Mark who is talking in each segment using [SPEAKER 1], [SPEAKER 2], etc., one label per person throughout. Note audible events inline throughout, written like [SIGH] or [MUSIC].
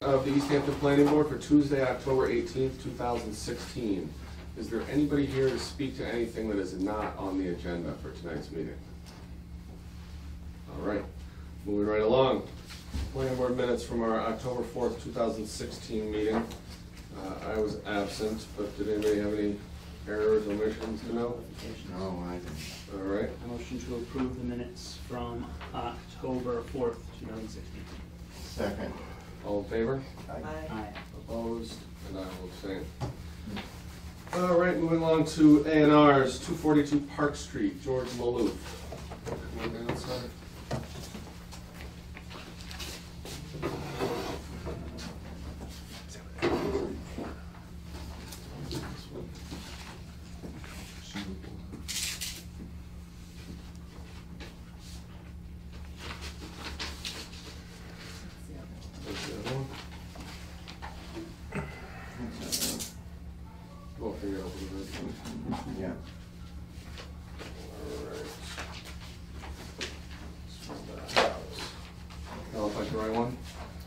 [SPEAKER 1] the East Hampton Planning Board for Tuesday, October eighteenth, two thousand sixteen. Is there anybody here to speak to anything that is not on the agenda for tonight's meeting? All right, moving right along. Planning Board minutes from our October fourth, two thousand sixteen meeting. Uh, I was absent, but did anybody have any errors, omissions to know?
[SPEAKER 2] No, I didn't.
[SPEAKER 1] All right,
[SPEAKER 3] Motion to approve the minutes from October fourth, two thousand sixteen.
[SPEAKER 2] Second.
[SPEAKER 1] all in favor?
[SPEAKER 3] Aye.
[SPEAKER 1] Opposed, and I will abstain. All right, moving along to A and R's, two forty-two Park Street, George Maloof. Come on down, sir. There's the other one. We'll figure out what it is.
[SPEAKER 2] Yeah.
[SPEAKER 1] Now, if I can write one?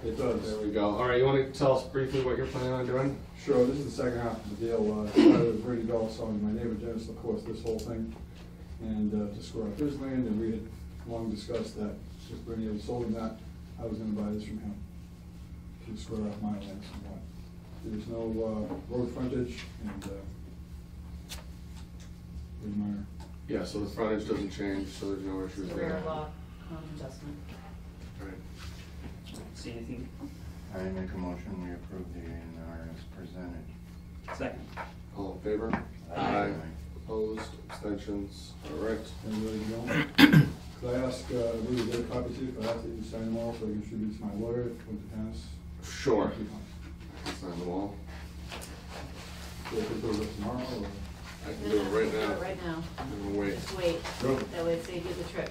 [SPEAKER 4] It
[SPEAKER 1] There
[SPEAKER 4] does.
[SPEAKER 1] we go. All right, you want to tell us briefly what you're planning on doing?
[SPEAKER 4] Sure, this is the second half of the deal. Uh, I was Brady Dolph selling my neighbor Dennis LaCourse this whole thing and uh, to square up his land, and we had long discussed that since Brady had sold him that, I was gonna buy this from him to square up my land somewhat. There's no uh, road frontage and uh, pretty minor.
[SPEAKER 1] Yeah, so the frontage doesn't change, so there's no issues there.
[SPEAKER 5] Rear lot um, adjustment.
[SPEAKER 1] All right.
[SPEAKER 3] See anything?
[SPEAKER 2] I make a motion, we approve the A and R as presented.
[SPEAKER 3] Second.
[SPEAKER 1] All in favor?
[SPEAKER 2] Aye.
[SPEAKER 1] Opposed, abstentions, all right.
[SPEAKER 4] And really don't. Could I ask, uh, who you get a copy to, could I ask that you sign them all so I can distribute to my lawyer with the Dennis?
[SPEAKER 1] Sure.
[SPEAKER 4] Thank you.
[SPEAKER 1] Sign them all.
[SPEAKER 4] So I could do it tomorrow or?
[SPEAKER 1] I can do it right
[SPEAKER 5] No, no,
[SPEAKER 1] now.
[SPEAKER 5] no, Right now.
[SPEAKER 1] I'm gonna wait.
[SPEAKER 5] Just wait.
[SPEAKER 4] Go.
[SPEAKER 5] That way it saves you the trip.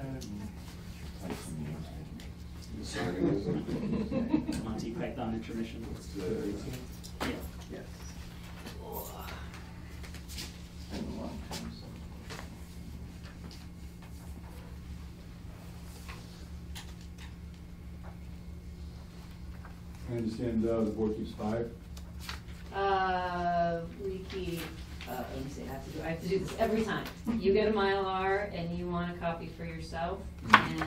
[SPEAKER 2] Play some music.
[SPEAKER 1] The signing is on-
[SPEAKER 3] Monty Python intermission.
[SPEAKER 1] Let's do that. 18.
[SPEAKER 3] Yeah.
[SPEAKER 2] Yes. It's been a long time since.
[SPEAKER 4] I understand uh, the board keeps five.
[SPEAKER 5] Uh, we keep, uh, let me see, I have to do, I have to do this every time. You get a Mylar and you want a copy for yourself, and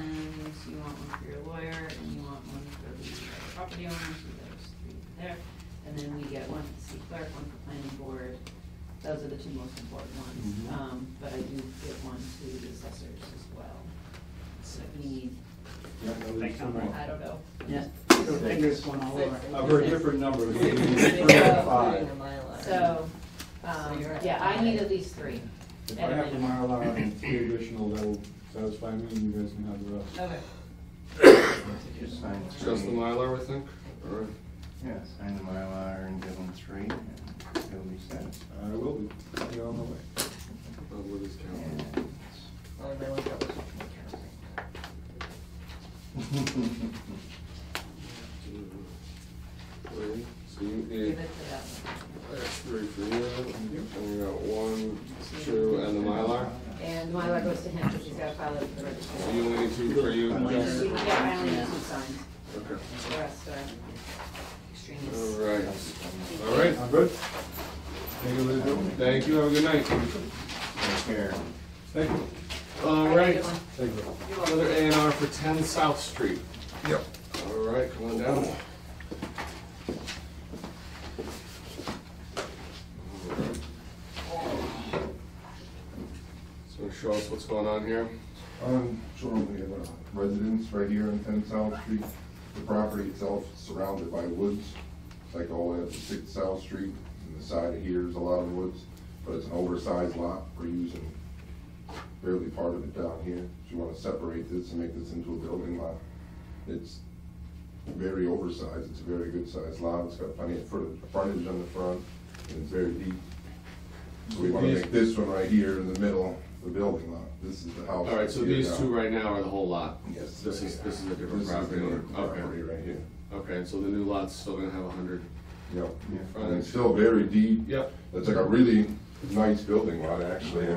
[SPEAKER 5] you want one for your lawyer, and you want one for the property owner, so there's three there. And then we get one for the city clerk, one for planning board. Those are the two most important ones.
[SPEAKER 4] Mhm.
[SPEAKER 5] Um, but I do get one to the assessors as well. So we need,
[SPEAKER 4] Yeah, that was
[SPEAKER 3] Thank you.
[SPEAKER 4] somewhere.
[SPEAKER 5] I don't know.
[SPEAKER 3] Yeah. Fingers one all over.
[SPEAKER 4] I've heard different numbers. [COUGHS]
[SPEAKER 1] Five.
[SPEAKER 5] So, um, yeah, I need at least three.
[SPEAKER 4] If I have the Mylar and three additional, that will satisfy me, and you guys can have the rest.
[SPEAKER 5] Okay.
[SPEAKER 2] Just sign three.
[SPEAKER 1] Just the Mylar, I think? All right.
[SPEAKER 2] Yeah, sign the Mylar and give them three, and they'll be satisfied.
[SPEAKER 4] I will be, Be on the way.
[SPEAKER 1] I'll move this
[SPEAKER 2] And
[SPEAKER 1] calendar.
[SPEAKER 2] it's-
[SPEAKER 1] Three. So you
[SPEAKER 5] Give
[SPEAKER 1] need,
[SPEAKER 5] it to them.
[SPEAKER 1] that's three for you, and we got one, two, and the Mylar.
[SPEAKER 5] And the Mylar goes to him, because he's got to file it for the registry.
[SPEAKER 1] So you only need two for you,
[SPEAKER 3] One
[SPEAKER 1] Jess?
[SPEAKER 3] for-
[SPEAKER 5] Yeah, I only need two signs.
[SPEAKER 1] Okay.
[SPEAKER 5] The rest are extraneous.
[SPEAKER 1] All right. All right.
[SPEAKER 4] I'm good? Thank you, Elizabeth.
[SPEAKER 1] Thank you. Have a good night.
[SPEAKER 2] [LAUGHS] Take care.
[SPEAKER 4] Thank you.
[SPEAKER 1] All
[SPEAKER 5] Have a good
[SPEAKER 1] right.
[SPEAKER 5] one.
[SPEAKER 4] Thank you.
[SPEAKER 5] You're welcome.
[SPEAKER 1] Another A and R for ten South Street. Yep. All right, come on down. So show us what's going on here.
[SPEAKER 6] Um, sure, we have a residence right here on Ten South Street. The property itself is surrounded by woods, It's like all the way up to Sixth South Street, and the side of here is a lot of woods, but it's an oversized lot, we're using barely part of it down here. If you wanna separate this and make this into a building lot, it's very oversized, it's a very good sized lot, it's got plenty of frontage frontage on the front, and it's very deep. So we wanna make this one right here in the middle, the building lot, this is the house.
[SPEAKER 1] All right, so
[SPEAKER 6] right here
[SPEAKER 1] these
[SPEAKER 6] now.
[SPEAKER 1] two right now are the whole lot.
[SPEAKER 6] Yes.
[SPEAKER 1] This is, this is a
[SPEAKER 6] This
[SPEAKER 1] different
[SPEAKER 6] the
[SPEAKER 1] property.
[SPEAKER 6] other
[SPEAKER 1] Okay.
[SPEAKER 6] property right here.
[SPEAKER 1] Okay, and so the new lot's still gonna have a hundred.
[SPEAKER 6] Yep,
[SPEAKER 1] Yeah.
[SPEAKER 6] and it's still very deep.
[SPEAKER 1] Yep.
[SPEAKER 6] It's like a really nice building lot, actually.